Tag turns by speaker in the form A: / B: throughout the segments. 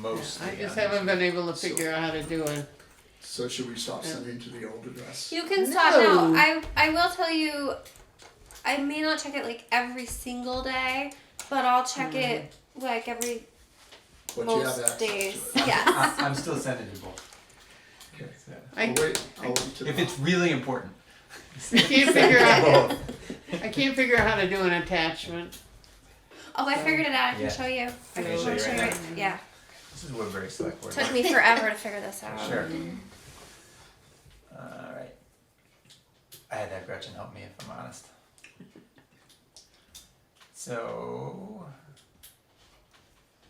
A: mostly.
B: I just
A: on
B: haven't been able to
C: So-
B: figure out how to do it.
C: So should we stop sending to the old address?
D: You can stop now.
B: No.
D: I I will tell you, I may not check it like every single day, but I'll check it like every
C: But you have access
D: most
C: to
D: days.
C: it.
A: I,
D: Yes.
A: I'm still sending you both.
C: Okay.
A: So,
B: I,
C: I'll Oh, wait. I'll wait till
A: if it's really important.
B: I can't figure out.
A: Both.
B: I can't figure out how to do an attachment.
D: Oh, I figured it out. I can
A: Yeah.
D: show you. I
A: Can
D: can
A: you show you right
D: it. Yeah.
A: This is Woodbury Select Board.
D: Took me forever to figure this out.
A: Sure.
B: um,
A: All right. I had that Gretchen help me if I'm honest. So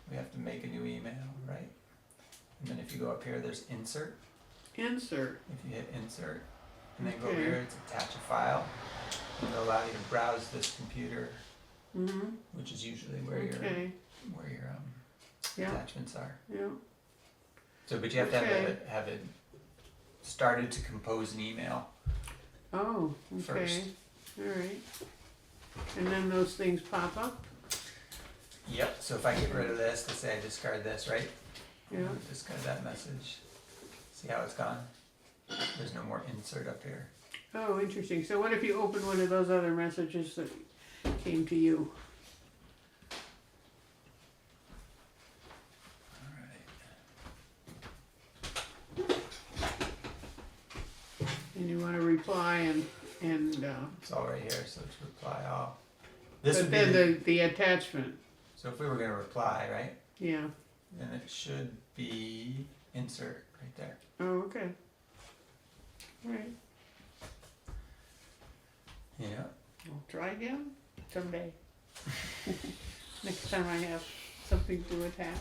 A: we have to make a new email, right? And then if you go up here, there's insert.
B: Insert.
A: If you hit insert, and then go over
B: Okay.
A: here, it's attach a file. And it'll allow you to browse this computer,
B: Mm-hmm.
A: which is usually where your
B: Okay.
A: where your um,
B: Yeah.
A: attachments are.
B: Yeah.
A: So, but you have to have
B: Okay.
A: it have it started to compose an email.
B: Oh. Okay.
A: First.
B: All right. And then those things pop up.
A: Yep, so if I get rid of this, let's say I discard this, right?
B: Yeah.
A: Discard that message. See how it's gone? There's no more insert up here.
B: Oh, interesting. So what if you open one of those other messages that came to you?
A: Alright.
B: And you want to reply and and uh,
A: It's all right here, so it's reply all. This
B: but
A: would be,
B: then
A: the-
B: the, the attachment.
A: so if we were gonna reply, right?
B: Yeah.
A: Then it should be insert right there.
B: Oh, okay. All right.
A: Yeah.
B: I'll try again someday. Next time I have something to attach.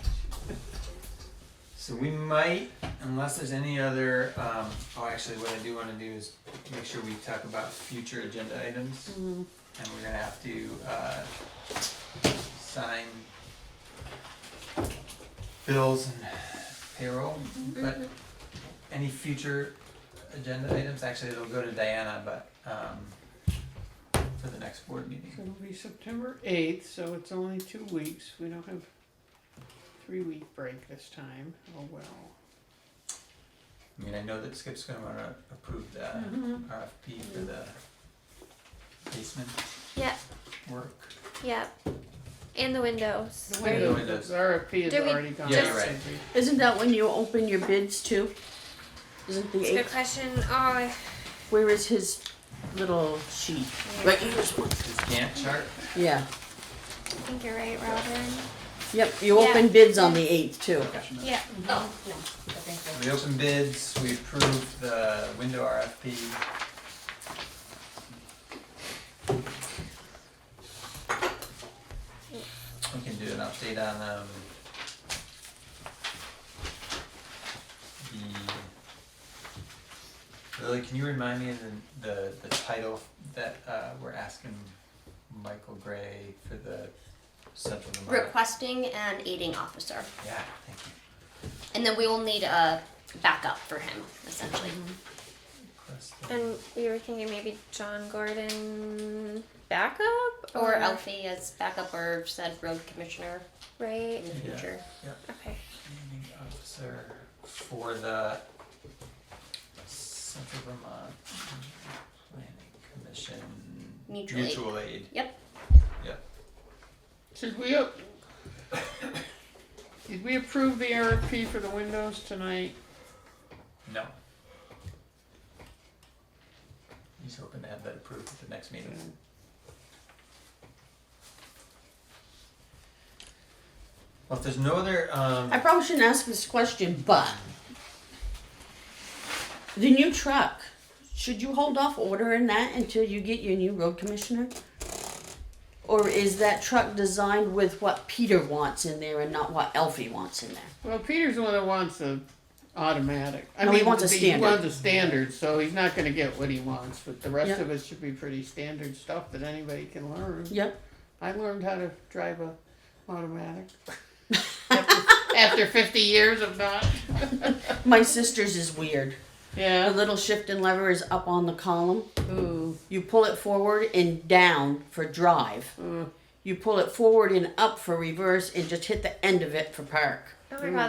A: So we might, unless there's any other, um, oh, actually, what I do wanna do is make sure we talk about future agenda items.
D: Mm-hmm.
B: Mm,
A: And we're gonna have to, uh, sign bills and payroll, but any future agenda items, actually, it'll go to Diana, but, um, for the next board
B: so
A: meeting.
B: it'll be September eighth, so it's only two weeks. We don't have three week break this time. Oh well.
A: I mean, I know that Skip's gonna wanna approve the
B: Mhm.
D: Mm-hmm.
A: RFP for the basement
D: Yeah.
A: work.
D: Yeah. And the windows.
B: The
A: Right.
B: windows, the RFP has
D: Did we
B: already gone.
A: Yeah,
B: out,
A: you're right.
B: I think.
E: Isn't that when you open your bids too? Isn't the
D: It's a good
E: eighth?
D: question. Oh,
E: Where is his little sheet? Right here's one.
A: This Gantt chart,
E: Yeah.
D: I think you're right, Robin.
E: Yep. You
D: Yeah.
E: open bids on the eighth too.
D: Yeah.
F: Oh, no, I think
A: we open bids, we approved the window RFP. We can do an update on, um, the, Lily, can you remind me of the, the, the title that, uh, we're asking Michael Gray for the Central
F: so.
A: Vermont?
F: Requesting an aiding officer,
A: Yeah, thank you.
F: and then we will need a backup for him, essentially.
A: Requesting-
D: And we were thinking maybe John Gordon
F: Backup
D: Or-
F: or Alfie as backup or said road commissioner
D: right?
F: in the
A: Yeah.
F: future.
D: Okay.
A: Commanding officer for the Central Vermont Planning Commission.
F: Mutual aid.
A: aid.
F: Yep.
B: Should we, up- did we approve the RFP for the windows tonight?
A: No. He's hoping to have that approved at the next meeting. Well, if there's no other, um,
E: I probably shouldn't ask this question, but the new truck. Should you hold off ordering that until you get your new road commissioner? Or is that truck designed with what Peter wants in there and not what Elfie wants in there?
B: Well, Peter's the one that wants the automatic. I
E: No, he
B: mean,
E: wants a
B: the-
E: standard.
B: He wants a standard, so he's not gonna get what he wants, but the rest
E: Yeah.
B: of it should be pretty standard stuff that anybody can learn.
E: Yep.
B: I learned how to drive a automatic. After- After fifty years of not.
E: My sister's is weird. The
B: Yeah.
E: little shift and lever is up on the column.
B: Ooh.
E: You pull it forward and down for drive. You pull it forward and up for reverse and just hit the end of it for park.
D: Oh my god,